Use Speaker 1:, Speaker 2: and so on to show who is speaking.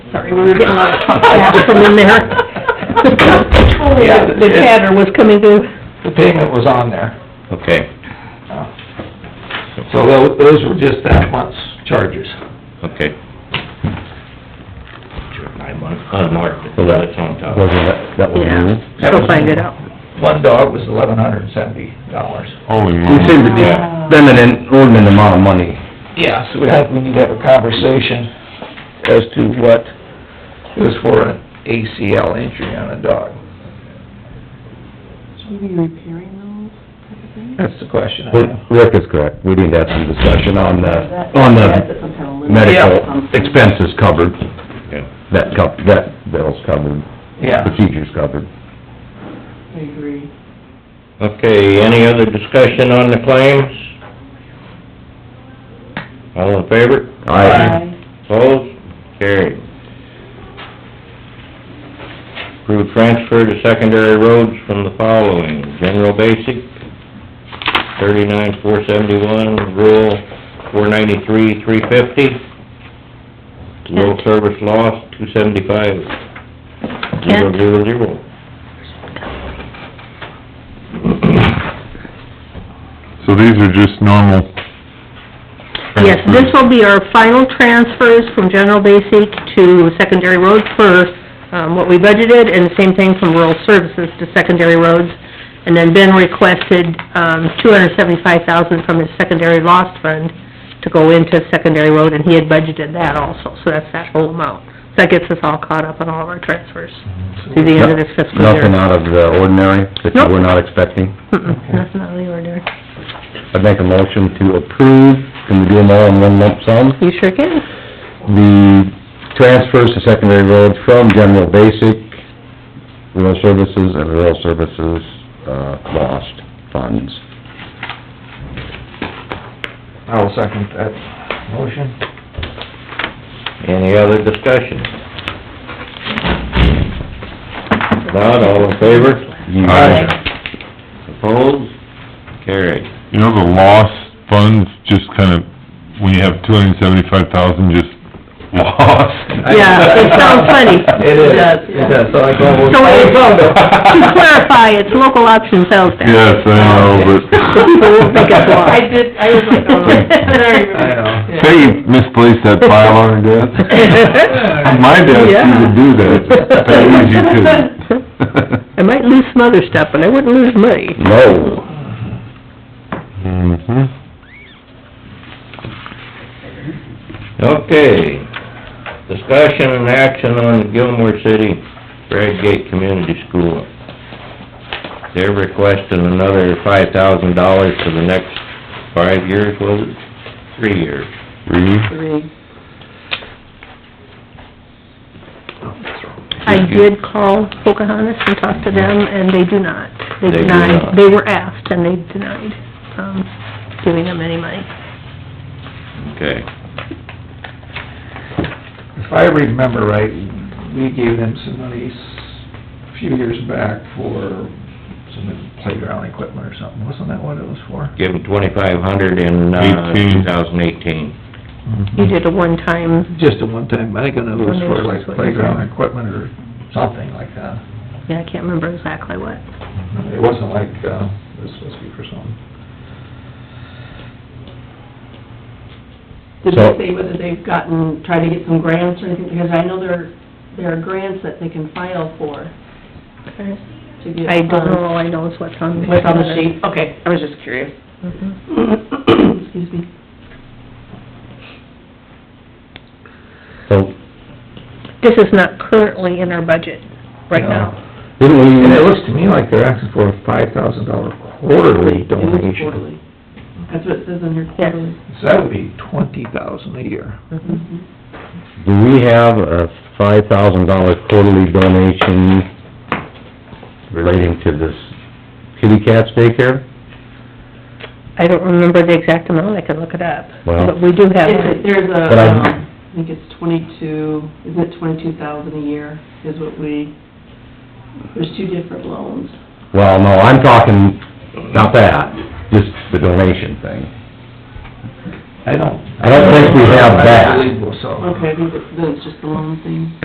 Speaker 1: sorry, we were getting a lot of chatter from in there.
Speaker 2: Yeah,
Speaker 1: The chatter was coming through.
Speaker 2: The payment was on there.
Speaker 3: Okay,
Speaker 2: uh, So tho- those were just that month's charges.
Speaker 3: okay.
Speaker 4: Nine months, unmarked,
Speaker 3: So that-
Speaker 4: that's on top.
Speaker 3: Wasn't that, that was
Speaker 1: Yeah.
Speaker 3: you?
Speaker 1: Go find it out.
Speaker 2: One dog was eleven hundred and seventy dollars.
Speaker 3: Holy moly. We seem to be spending an inordinate amount of money
Speaker 2: Yeah, so we have, we need to have a conversation as to what is for an ACL injury on a dog.
Speaker 5: Should we be repairing those type of things?
Speaker 2: That's the question I
Speaker 3: Well,
Speaker 2: have.
Speaker 3: Rick is correct, we need to have some discussion on the,
Speaker 5: That-
Speaker 3: on
Speaker 5: that's
Speaker 3: the
Speaker 5: some kind of limit or
Speaker 3: medical
Speaker 5: something.
Speaker 3: expenses covered. That cov, that bill's covered,
Speaker 2: Yeah.
Speaker 3: procedures covered.
Speaker 5: I agree.
Speaker 4: Okay, any other discussion on the claims? All in favor?
Speaker 3: I
Speaker 4: Opposed? Carried. Approve transfer to secondary roads from the following, general basic, thirty-nine, four seventy-one, rural, four ninety-three, three fifty. Low service loss, two seventy-five, zero, zero, zero.
Speaker 6: So these are just normal...
Speaker 1: Yes, this will be our final transfers from general basic to secondary roads for, um, what we budgeted, and the same thing from rural services to secondary roads. And then Ben requested, um, two hundred seventy-five thousand from his secondary lost fund to go into secondary road, and he had budgeted that also, so that's that whole amount. So That gets us all caught up on all of our transfers through the end of this fiscal year.
Speaker 3: Nothing out of the ordinary that you were not expecting.
Speaker 1: Mm-mm, Nothing out of the ordinary.
Speaker 3: I'd make a motion to approve, can we do them all in one lump sum?
Speaker 1: You sure can.
Speaker 3: the transfers to secondary roads from general basic, rural services and rural services, uh, lost funds.
Speaker 2: I'll second that motion.
Speaker 4: Any other discussion? If Not all in favor?
Speaker 3: Aye.
Speaker 4: Opposed? Carried.
Speaker 6: You know, the lost funds just kind of, when you have two hundred and seventy-five thousand just lost.
Speaker 1: Yeah, it sounds funny.
Speaker 2: It is, it does, so I go...
Speaker 1: So it- To clarify, it's local option sales tax.
Speaker 6: Yes, I know,
Speaker 1: We'll make it block.
Speaker 6: but...
Speaker 5: I did, I was like, oh, but I
Speaker 2: I
Speaker 5: remember.
Speaker 2: know.
Speaker 6: Say you misplaced that file on your desk. On my desk, you would do that, It's that easy to...
Speaker 1: I might lose some other stuff, but I wouldn't lose money.
Speaker 3: No. Mm-hmm.
Speaker 6: Mhm.
Speaker 4: Okay. Discussion and action on Gilmore City Red Gate Community School. They're requesting another five thousand dollars for the next five years, was it? Three years.
Speaker 6: Read.
Speaker 1: I did call Pocahontas and talk to them, and they do not. They
Speaker 4: They do not.
Speaker 1: denied, they were asked, and they denied, um, giving them any money.
Speaker 4: Okay.
Speaker 2: If I remember right, we gave them some money s- a few years back for some playground equipment or something, wasn't that what it was for?
Speaker 4: Give them twenty-five hundred in, uh, two
Speaker 6: Eighteen.
Speaker 4: thousand eighteen.
Speaker 1: You did a one-time,
Speaker 2: Just a one-time, I think it was for like
Speaker 1: Foundations, what you said.
Speaker 2: playground equipment or something like that.
Speaker 1: yeah, I can't remember exactly what.
Speaker 2: It wasn't like, uh, it was supposed to be for something.
Speaker 5: Did
Speaker 3: So-
Speaker 5: they say whether they've gotten, tried to get some grants or anything? Because I know there, there are grants that they can file for to get.
Speaker 1: I don't
Speaker 5: funds.
Speaker 1: know, all I know is what's on the...
Speaker 5: um, What's on the sheet? Okay, I was just curious.
Speaker 1: Mhm.
Speaker 5: Excuse me.
Speaker 3: So,
Speaker 1: This is not currently in our budget right
Speaker 2: No.
Speaker 1: now.
Speaker 3: didn't we,
Speaker 2: And it looks to me like they're asking for a five thousand dollar quarterly
Speaker 5: It was
Speaker 2: donation.
Speaker 5: quarterly. That's what it says in here, quarterly.
Speaker 2: So that would be twenty thousand a year.
Speaker 5: Mhm.
Speaker 3: do we have a five thousand dollar quarterly donation relating to this kitty cats daycare?
Speaker 1: I don't remember the exact amount, I could look it up.
Speaker 3: Well-
Speaker 1: But we do have
Speaker 5: It's-
Speaker 1: it.
Speaker 5: There's
Speaker 3: But
Speaker 5: a,
Speaker 3: I-
Speaker 5: um, I think it's twenty-two, isn't it twenty-two thousand a year is what we, there's two different loans.
Speaker 3: Well, no, I'm talking, not that, just the donation thing.
Speaker 2: I don't...
Speaker 3: I don't think we have that.
Speaker 2: I believe so.
Speaker 5: Okay, I think it's- then it's just the loan thing.